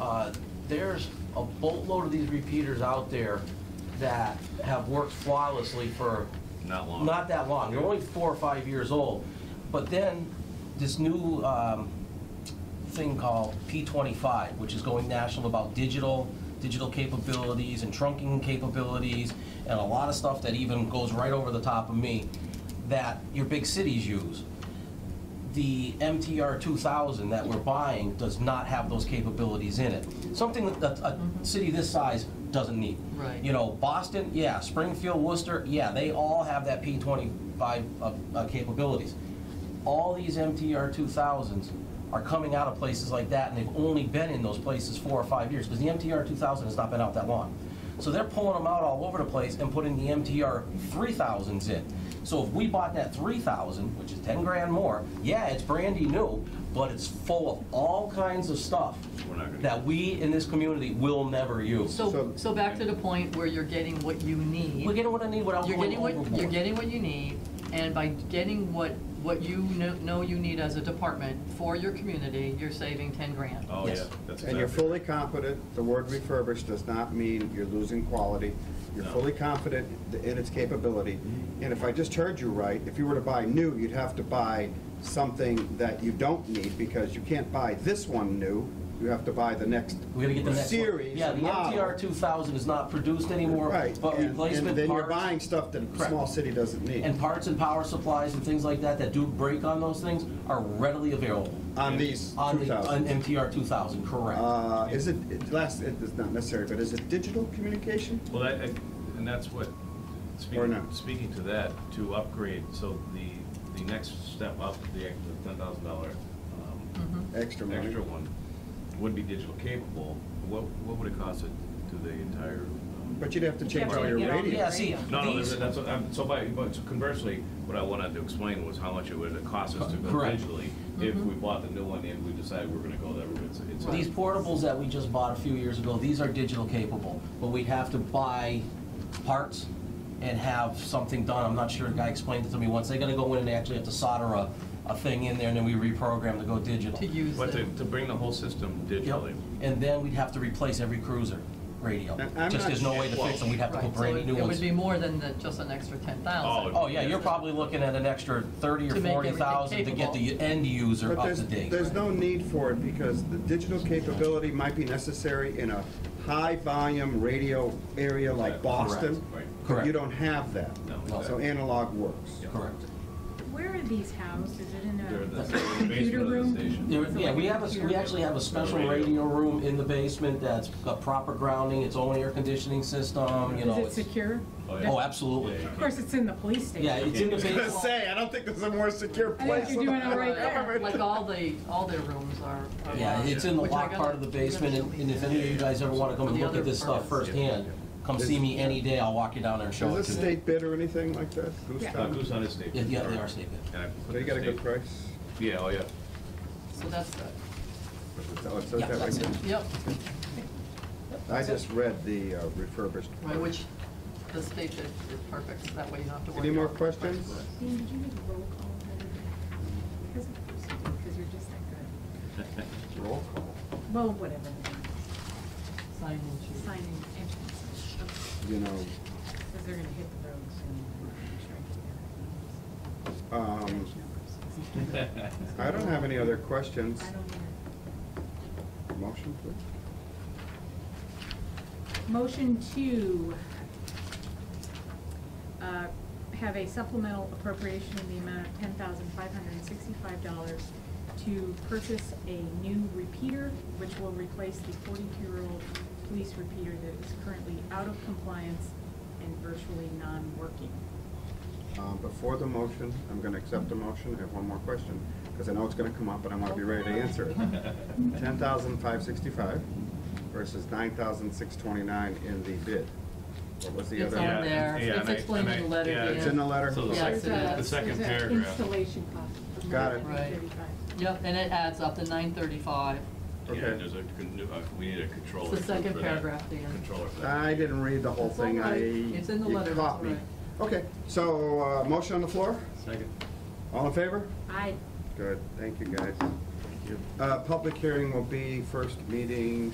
uh, there's a boatload of these repeaters out there that have worked flawlessly for Not long. not that long. They're only four or five years old. But then, this new um, thing called P25, which is going national about digital, digital capabilities and trunking capabilities, and a lot of stuff that even goes right over the top of me, that your big cities use. The MTR 2000 that we're buying does not have those capabilities in it. Something that a a city this size doesn't need. Right. You know, Boston, yeah, Springfield, Worcester, yeah, they all have that P25 uh, uh, capabilities. All these MTR 2000s are coming out of places like that, and they've only been in those places four or five years, because the MTR 2000 has not been out that long. So they're pulling them out all over the place and putting the MTR 3000s in. So if we bought that 3000, which is 10 grand more, yeah, it's brandy new, but it's full of all kinds of stuff We're not gonna- that we in this community will never use. So, So- so back to the point where you're getting what you need. We're getting what I need without You're going getting overboard. what, you're getting what you need, and by getting what, what you kno- know you need as a department for your community, you're saving ten grand. Oh, yeah, Yes. that's And you're exactly- fully confident, the word refurbished does not mean you're losing quality. You're No. fully confident in its capability. And if I just heard you right, if you were to buy new, you'd have to buy something that you don't need because you can't buy this one new. You have to buy the next We're gonna get the next one. series, Yeah, the model. MTR 2000 is not produced anymore, Right. but and- And replacement then you're parts buying stuff that a Correct. small city doesn't need. and parts and power supplies and things like that that do break on those things are readily available On these on the, on 2,000. MTR 2000, correct. Uh, Is it, it- last, it's not necessary, but is it digital communication? Well, that, that- and that's what, Or speaking, not. speaking to that, to upgrade, so the, the next step up, the ten thousand dollar um, Mm-hmm. Extra money. extra one, would be digital capable, what, what would it cost it to the entire? um, But you'd have to change all your get all the- radios. Yeah, see, No, no, these, that's- that's, what I'm- so by, but conversely, what I wanted to explain was how much it would cost us to go Correct. digitally if we bought the new one and we decided we were gonna go that route. It's- it's a- Mm-hmm. these portables that we just bought a few years ago, these are digital capable, but we'd have to buy parts and have something done. I'm not sure, a guy explained it to me once. They're gonna go in and actually have to solder a, a thing in there and then we reprogram to go digital. To use But to, the, to bring the whole system digitally. Yep, and then we'd have to replace every cruiser radio. And I'm Just not there's no way to sure- fix them, we'd have to right, put so brand it new it ones. would be more than the, just an extra ten thousand. Oh, yeah, you're probably looking at an extra thirty or To make forty everything thousand to get the end user But up there's, to date. there's no need for it because the digital capability might be necessary in a high-volume radio area like Correct. Boston. Right. But Correct. you don't have that. No, So exactly. analog works. Yeah. Correct. Where are these housed? Is it in They're in the- a they're in the computer basement of the room? station. There- Yeah, we have, a we actually have a special radio room in the basement that's got proper grounding, its own air conditioning system, you know. Is it it's- secure? Oh, yeah. Oh, absolutely. Of course, it's in the police Yeah, station. it's in the I was basement. gonna say, I don't think there's a more secure I think place. you're doing it right Right, there. Uh, Like all the, all their rooms are. are Yeah, large, it's in the which I locked gotta- part of the basement, and and if any of you guys ever wanna come and look at this stuff firsthand, come see me any day, I'll walk you down there and show it Is to this you. state bid or anything like that? Goose Yeah. Uh, Town? Goose Hunt is state. Yeah, yeah, they are state bid. And I put So you the got a good state- price? Yeah, oh, yeah. So that's good, Oh, it says Yeah, that right that's it. there. yep, I just read the uh, refurbished. right, which the state did, is perfect, that way you don't have to worry. Any more about the price questions? for it. Dean, did you make a roll call? Because of course you did, because you're just that Roll call. good. Well, whatever. Sign and choose. Signing entrance. You know, Because they're going to hit the road soon. um, I don't have any other questions. I don't either. Motion, please. Motion to uh, have a supplemental appropriation in the amount of ten thousand five hundred and sixty-five dollars to purchase a new repeater, which will replace the forty-two-year-old police repeater that is currently out of compliance and virtually non-working. Um, Before the motion, I'm going to accept the motion, I have one more question, because I know it's going to come up, and I want to be ready to answer it. Ten thousand five sixty-five versus nine thousand six twenty-nine in the bid. What was the It's other? on Yeah, there, yeah, it's and I- explained and in the I- letter, yeah, Dan. It's in the letter? So the Yeah, it's second, a- the second There's a paragraph. Installation cost. of Got it. $135. Yep, and it adds up to nine thirty-five. Yeah, Okay. there's a, con- uh, we need a controller. It's the second for that. paragraph, Dan. Controller for that. I didn't read the whole It's thing, all I. right. It's in the you letter, caught that's me. Okay, so, uh, motion on the floor? Second. All in favor? I Uh, Good, thank you, guys. Thank you. Public hearing will be first meeting